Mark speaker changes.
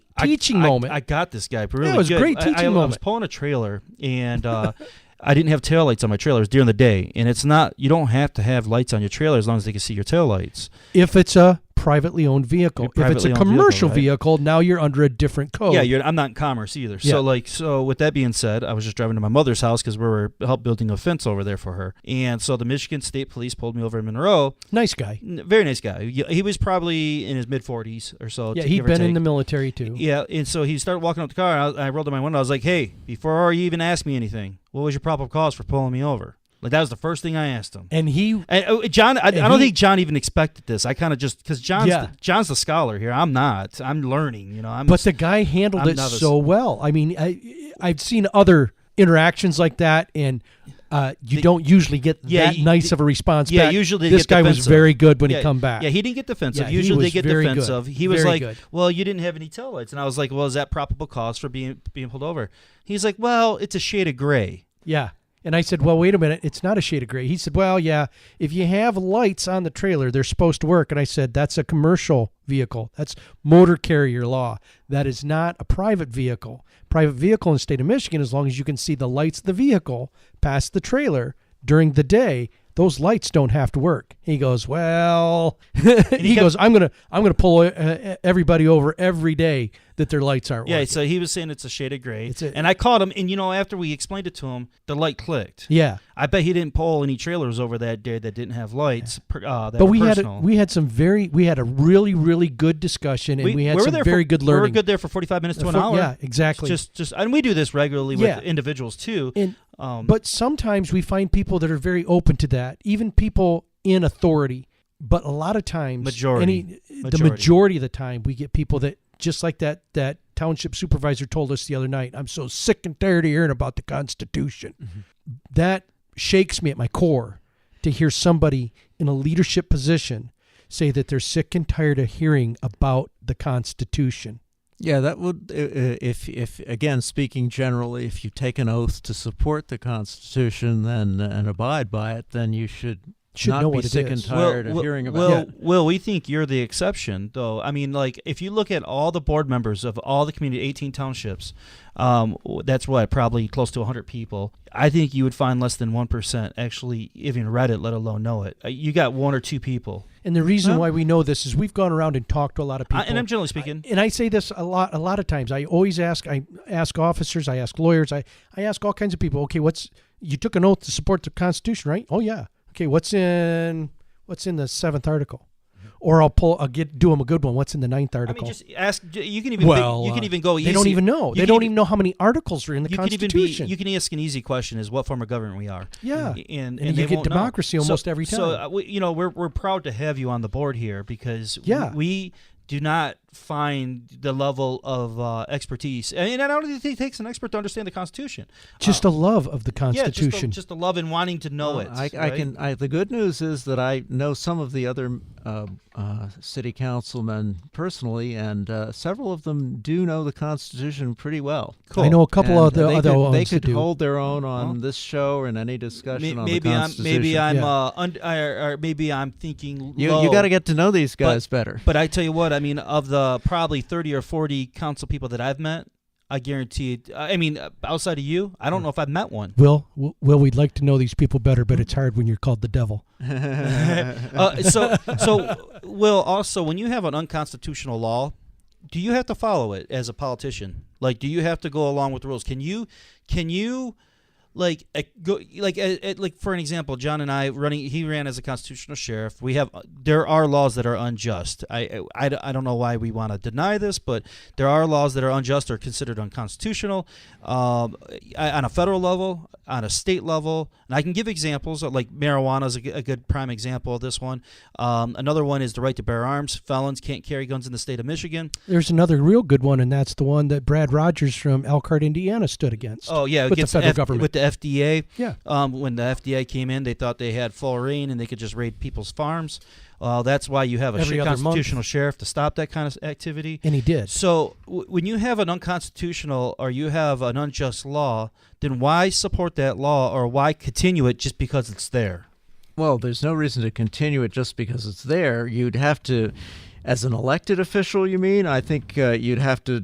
Speaker 1: I-
Speaker 2: teaching
Speaker 1: I-
Speaker 2: moment.
Speaker 1: I, got this guy really
Speaker 2: it was a
Speaker 1: good.
Speaker 2: great
Speaker 1: I- I-
Speaker 2: teaching
Speaker 1: I, was
Speaker 2: moment.
Speaker 1: pulling a trailer and uh, I didn't have tail lights on my trailers during the day, and it's not you don't have to have lights on your trailer as long as they can see your tail lights.
Speaker 2: if it's a privately owned vehicle,
Speaker 1: Be
Speaker 2: if it's a
Speaker 1: privately owned vehicle,
Speaker 2: commercial
Speaker 1: right.
Speaker 2: vehicle, now you're under a different code.
Speaker 1: Yeah, you're, I'm not in commerce either.
Speaker 2: Oh. Yeah.
Speaker 1: So like, so with that being said, I was just driving to my mother's house because we were help building a fence over there for her, and so the Michigan State Police pulled me over in Monroe.
Speaker 2: nice guy.
Speaker 1: N- Very nice guy. He he was probably in his mid 40s or so.
Speaker 2: Yeah,
Speaker 1: t-
Speaker 2: he'd
Speaker 1: give or
Speaker 2: been in
Speaker 1: take.
Speaker 2: the military too.
Speaker 1: Yeah, and so he started walking up the car. And I, I rolled up my window. I was like, "Hey, before you even ask me anything, what was your probable cause for pulling me over?" Like that was the first thing I asked him.
Speaker 2: And he,
Speaker 1: And uh, John, I, I
Speaker 2: And
Speaker 1: don't
Speaker 2: he-
Speaker 1: think John even expected this. I kind of just because John's
Speaker 2: Yeah.
Speaker 1: the, John's the scholar here. I'm not. I'm learning. You know, I'm.
Speaker 2: but the guy handled
Speaker 1: I'm
Speaker 2: it
Speaker 1: novice.
Speaker 2: so well. I mean, I, I've seen other interactions like that, and uh, you
Speaker 1: The-
Speaker 2: don't usually get
Speaker 1: Yeah,
Speaker 2: that
Speaker 1: you-
Speaker 2: nice of a response.
Speaker 1: yeah,
Speaker 2: back.
Speaker 1: usually they
Speaker 2: this
Speaker 1: get
Speaker 2: guy was
Speaker 1: defensive.
Speaker 2: very good when he
Speaker 1: Yeah,
Speaker 2: come back.
Speaker 1: Yeah, he didn't get defensive.
Speaker 2: Yeah, he
Speaker 1: Usually
Speaker 2: was
Speaker 1: they get
Speaker 2: very good.
Speaker 1: defensive. He was
Speaker 2: Very
Speaker 1: like,
Speaker 2: good.
Speaker 1: "Well, you didn't have any taillights," and I was like, "Well, is that probable cause for being being pulled over?" He's like, "Well, it's a shade of gray."
Speaker 2: Yeah. And I said, well, wait a minute. It's not a shade of gray. He said, well, yeah, if you have lights on the trailer, they're supposed to work. And I said, that's a commercial vehicle. That's motor carrier law. That is not a private vehicle. Private vehicle in the state of Michigan, as long as you can see the lights of the vehicle past the trailer during the day, those lights don't have to work. He goes, well, he,
Speaker 1: kept-
Speaker 2: goes, I'm going to, I'm going to pull uh, everybody over every day that their lights aren't
Speaker 1: Yeah,
Speaker 2: working.
Speaker 1: so he was saying it's a shade of gray,
Speaker 2: It's a-
Speaker 1: and I caught him. And you know, after we explained it to him, the light clicked.
Speaker 2: Yeah.
Speaker 1: I bet he didn't pull any trailers over that day that didn't have lights. per- Uh, that
Speaker 2: but
Speaker 1: were
Speaker 2: we had a,
Speaker 1: personal.
Speaker 2: we had some very we had a really really good discussion and we, had
Speaker 1: were
Speaker 2: some
Speaker 1: there
Speaker 2: very
Speaker 1: for,
Speaker 2: good
Speaker 1: We were
Speaker 2: learning.
Speaker 1: good there for forty five minutes to an
Speaker 2: For-
Speaker 1: hour.
Speaker 2: Yeah, exactly.
Speaker 1: Just, just, and we do this regularly
Speaker 2: Yeah.
Speaker 1: with individuals too.
Speaker 2: and
Speaker 1: Um,
Speaker 2: but sometimes we find people that are very open to that, even people in authority. But a lot of times,
Speaker 1: Majority.
Speaker 2: any, the
Speaker 1: Majority.
Speaker 2: majority of the time, we get people that just like that that township supervisor told us the other night. I'm so sick and tired of hearing about the Constitution.
Speaker 1: Mm-hmm.
Speaker 2: That shakes me at my core to hear somebody in a leadership position say that they're sick and tired of hearing about the Constitution.
Speaker 3: Yeah, that would, uh, uh, if, if again, speaking generally, if you take an oath to support the Constitution then and abide by it, then you should,
Speaker 2: Should
Speaker 3: not
Speaker 2: know
Speaker 3: be
Speaker 2: what it
Speaker 3: sick
Speaker 2: is.
Speaker 3: and
Speaker 1: Well,
Speaker 3: tired of
Speaker 1: well,
Speaker 3: hearing about
Speaker 1: well,
Speaker 3: it.
Speaker 1: Well, we think you're the exception, though. I mean, like if you look at all the board members of all the community, 18 townships, um, w- that's what probably close to 100 people. I think you would find less than one percent actually even read it, let alone know it. Uh, You got one or two people,
Speaker 2: And the reason
Speaker 3: Huh?
Speaker 2: why we know this is we've gone around and talked to a lot of
Speaker 1: I,
Speaker 2: people.
Speaker 1: and I'm generally speaking.
Speaker 2: and I say this a lot a lot of times. I always ask I ask officers, I ask lawyers, I, I ask all kinds of people, okay, what's you took an oath to support the constitution, right? Oh yeah. Okay, what's in what's in the seventh article? Or I'll pull I'll get do them a good one. What's in the ninth
Speaker 1: Mm-hmm. I,
Speaker 2: article?
Speaker 1: mean, just ask. j- You can even
Speaker 2: Well,
Speaker 1: think- you can
Speaker 2: uh,
Speaker 1: even go.
Speaker 2: they
Speaker 1: Easy.
Speaker 2: don't even know.
Speaker 1: you
Speaker 2: They
Speaker 1: can
Speaker 2: don't
Speaker 1: even-
Speaker 2: even know how many articles are in the
Speaker 1: You can even be.
Speaker 2: constitution.
Speaker 1: You can ask an easy question: Is what form of government we are?
Speaker 2: Yeah.
Speaker 1: and, and,
Speaker 2: And
Speaker 1: they
Speaker 2: you get
Speaker 1: won't know.
Speaker 2: democracy almost every
Speaker 1: So
Speaker 2: time.
Speaker 1: uh, we, you know, we're we're proud to have you on the board here because
Speaker 2: Yeah.
Speaker 1: we, we do not find the level of uh, expertise, and, and I don't think it takes an expert to understand the Constitution.
Speaker 2: just a love of the
Speaker 1: oh. Yeah, just the,
Speaker 2: constitution.
Speaker 1: just the love and wanting to know
Speaker 3: Well,
Speaker 1: it.
Speaker 3: I, I
Speaker 1: right?
Speaker 3: can. I, the good news is that I know some of the other uh, uh, city councilmen personally, and uh, several of them do know the Constitution pretty well.
Speaker 1: Cool.
Speaker 2: I know a couple
Speaker 3: And
Speaker 2: of the
Speaker 3: they
Speaker 2: other
Speaker 3: could,
Speaker 2: ones
Speaker 3: they
Speaker 2: that
Speaker 3: could
Speaker 2: do.
Speaker 3: hold their own on
Speaker 1: Well,
Speaker 3: this show or in any discussion
Speaker 1: Ma-
Speaker 3: on
Speaker 1: maybe
Speaker 3: the
Speaker 1: I'm
Speaker 3: Constitution.
Speaker 1: maybe I'm
Speaker 2: Yeah.
Speaker 1: uh, und- or, or maybe I'm thinking
Speaker 3: you
Speaker 1: low.
Speaker 3: you got to get to know these guys better.
Speaker 1: But I tell you what, I mean, of the probably 30 or 40 council people that I've met, I guarantee it. I mean, uh, outside of you, I don't know if I've met one.
Speaker 2: Will, w- Will, we'd like to know these people better, but it's hard when you're called the devil.
Speaker 1: Uh, so, so, Will, also, when you have an unconstitutional law, do you have to follow it as a politician? Like, do you have to go along with the rules? Can you, can you, like, uh, go, like, uh, uh, like for an example, John and I running, he ran as a constitutional sheriff. We have, there are laws that are unjust. I, I, I don't know why we want to deny this, but there are laws that are unjust or considered unconstitutional um, I- on a federal level, on a state level. And I can give examples uh, like marijuana is a, g- a good prime example of this one. Um, another one is the right to bear arms. Felons can't carry guns in the state of Michigan.
Speaker 2: There's another real good one, and that's the one that Brad Rogers from Elkhart, Indiana, stood against.
Speaker 1: Oh yeah,
Speaker 2: with the
Speaker 1: against
Speaker 2: federal
Speaker 1: F-
Speaker 2: government.
Speaker 1: with the FDA.
Speaker 2: Yeah.
Speaker 1: Um, when the FDA came in, they thought they had full reign and they could just raid people's farms. Uh, that's why you have a
Speaker 2: Every
Speaker 1: sh-
Speaker 2: other month.
Speaker 1: constitutional sheriff to stop that kind of s- activity.
Speaker 2: and he did.
Speaker 1: So w- when you have an unconstitutional or you have an unjust law, then why support that law or why continue it just because it's there?
Speaker 3: Well, there's no reason to continue it just because it's there. You'd have to, as an elected official, you mean? I think uh, you'd have to